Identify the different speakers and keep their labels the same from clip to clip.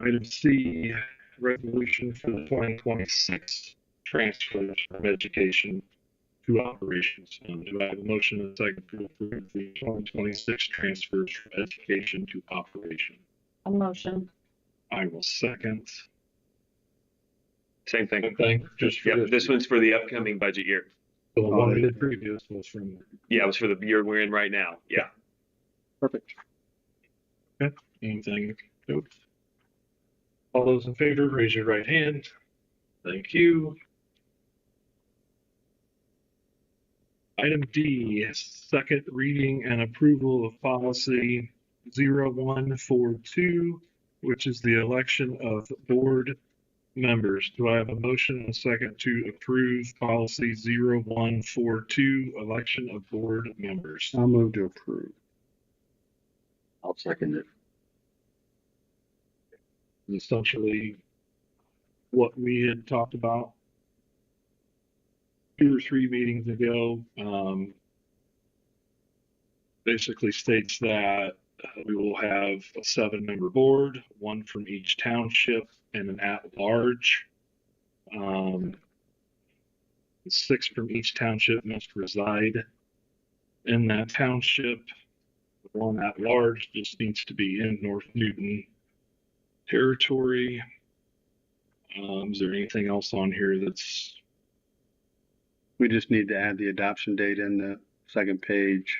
Speaker 1: Item C, resolution for the twenty twenty-six transfers from education to operations fund. Do I have a motion and a second to approve the twenty twenty-six transfers from education to operation?
Speaker 2: A motion.
Speaker 1: I will second.
Speaker 3: Same thing.
Speaker 1: Okay, just for
Speaker 3: Yep, this one's for the upcoming budget year.
Speaker 1: The one we did previous was from,
Speaker 3: Yeah, it was for the year we're in right now. Yeah.
Speaker 1: perfect. Okay, anything? Nope. All those in favor, raise your right hand. Thank you. Item D, second reading and approval of policy 0142, which is the election of board members. Do I have a motion and a second to approve policy 0142, election of board members?
Speaker 4: I'll move to approve.
Speaker 5: I'll second it.
Speaker 1: essentially what we had talked about two or three meetings ago. Um, basically states that uh, we will have a seven member board, one from each township and an at large. Um, six from each township must reside in that township. The One at large just needs to be in North Newton territory. Um, is there anything else on here that's
Speaker 4: We just need to add the adoption date in the second page.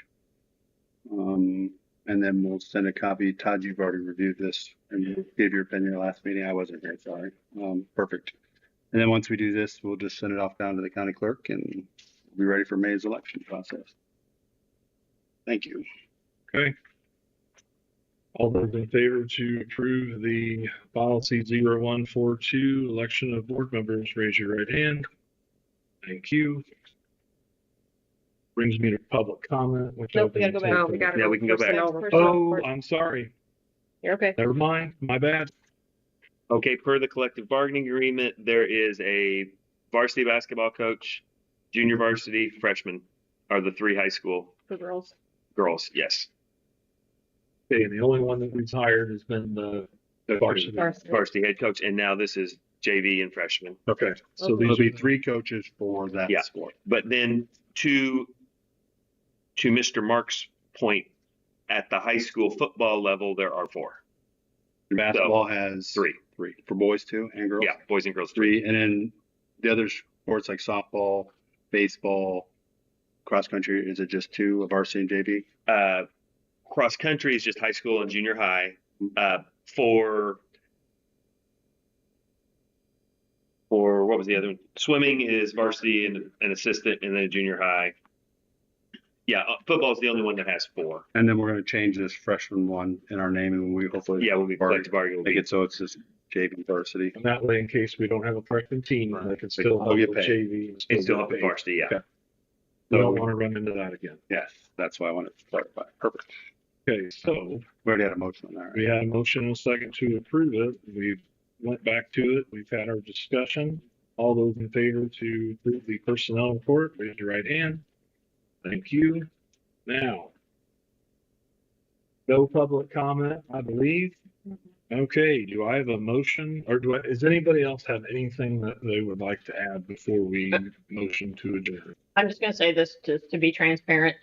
Speaker 4: Um, and then we'll send a copy. Todd, you've already reviewed this and you gave your opinion last meeting. I wasn't here, sorry. Um, perfect. And then once we do this, we'll just send it off down to the county clerk and be ready for May's election process. Thank you.
Speaker 1: okay? All those in favor to approve the policy 0142, election of board members, raise your right hand. Thank you. Brings me to public comment, which I've
Speaker 2: Nope, we gotta
Speaker 1: been
Speaker 2: go back.
Speaker 1: taking-
Speaker 3: Yeah, Oh, we can go back.
Speaker 2: Personnel report.
Speaker 1: Oh, I'm sorry.
Speaker 2: You're okay.
Speaker 1: Never mind. My bad.
Speaker 3: Okay, per the collective bargaining agreement, there is a varsity basketball coach, junior varsity, freshman are the three high school
Speaker 2: For girls.
Speaker 3: girls. Yes.
Speaker 1: Okay, and the only one that we've hired has been the
Speaker 3: The
Speaker 1: varsity.
Speaker 2: Varsity.
Speaker 3: varsity head coach. And now this is JV and freshman.
Speaker 1: Okay, so
Speaker 2: Okay.
Speaker 4: There'll
Speaker 1: these
Speaker 4: be
Speaker 1: are
Speaker 4: three coaches for that
Speaker 3: Yeah.
Speaker 4: sport.
Speaker 3: But then to to Mr. Mark's point, at the high school football level, there are four,
Speaker 4: Basketball has
Speaker 3: three,
Speaker 4: three for boys too and girls.
Speaker 3: yeah, boys and girls, three.
Speaker 4: three, and then the other sports like softball, baseball, cross country. Is it just two of varsity and JV?
Speaker 3: Uh, cross country is just high school and junior high. Uh, for for what was the other one? Swimming is varsity and an assistant, and then junior high. Yeah, uh, football is the only one that has four.
Speaker 4: And then we're going to change this freshman one in our name, and we hopefully
Speaker 3: Yeah, we'll be
Speaker 4: Varsity.
Speaker 3: collective bargaining. will
Speaker 4: make
Speaker 3: be-
Speaker 4: it so it's just JV varsity.
Speaker 1: And that way, in case we don't have a correcting team, they can still
Speaker 4: They'll
Speaker 1: help
Speaker 4: get
Speaker 1: with
Speaker 4: paid.
Speaker 1: JV.
Speaker 3: It's still up at varsity. Yeah.
Speaker 1: Okay. We don't want to run into that again.
Speaker 4: Yes, that's why I wanted to clarify. Perfect.
Speaker 1: Okay, so
Speaker 4: We already had a motion on that. Right?
Speaker 1: we had a motion and a second to approve it. We went back to it. We've had our discussion. All those in favor to approve the personnel report, raise your right hand. Thank you. Now. No public comment, I believe. Okay, do I have a motion or do I, does anybody else have anything that they would like to add before we motion to adjourn?
Speaker 6: I'm just gonna say this to, to be transparent.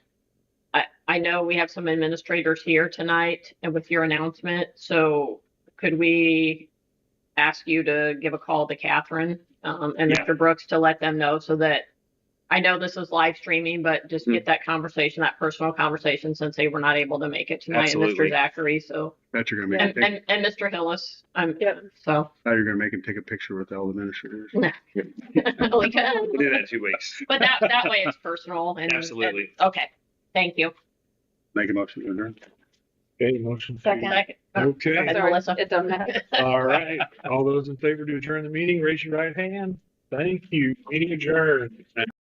Speaker 6: I, I know we have some administrators here tonight and with your announcement, so could we ask you to give a call to Catherine, um, and
Speaker 3: Yeah.
Speaker 6: Mr. Brooks to let them know so that I know this is live streaming, but just
Speaker 3: Hmm.
Speaker 6: get that conversation, that personal conversation, since they were not able to make it tonight, and
Speaker 3: Absolutely.
Speaker 6: Mr. Zachary, so,
Speaker 4: That you're going to make
Speaker 6: and,
Speaker 4: him take,
Speaker 6: and, and Mr. Hillis, um,
Speaker 2: Yep.
Speaker 6: so.
Speaker 4: now you're going to make him take a picture with all the administrators.
Speaker 3: We'll do that in two weeks.
Speaker 6: But that, that way it's personal and. and-
Speaker 3: Absolutely.
Speaker 6: Okay, thank you.
Speaker 4: Make a motion to adjourn.
Speaker 1: Okay, motion. to-
Speaker 2: Second.
Speaker 6: Second.
Speaker 1: Okay.
Speaker 6: Sorry, Melissa.
Speaker 2: It doesn't matter.
Speaker 1: All right, all those in favor to adjourn the meeting, raise your right hand. Thank you, meeting adjourned.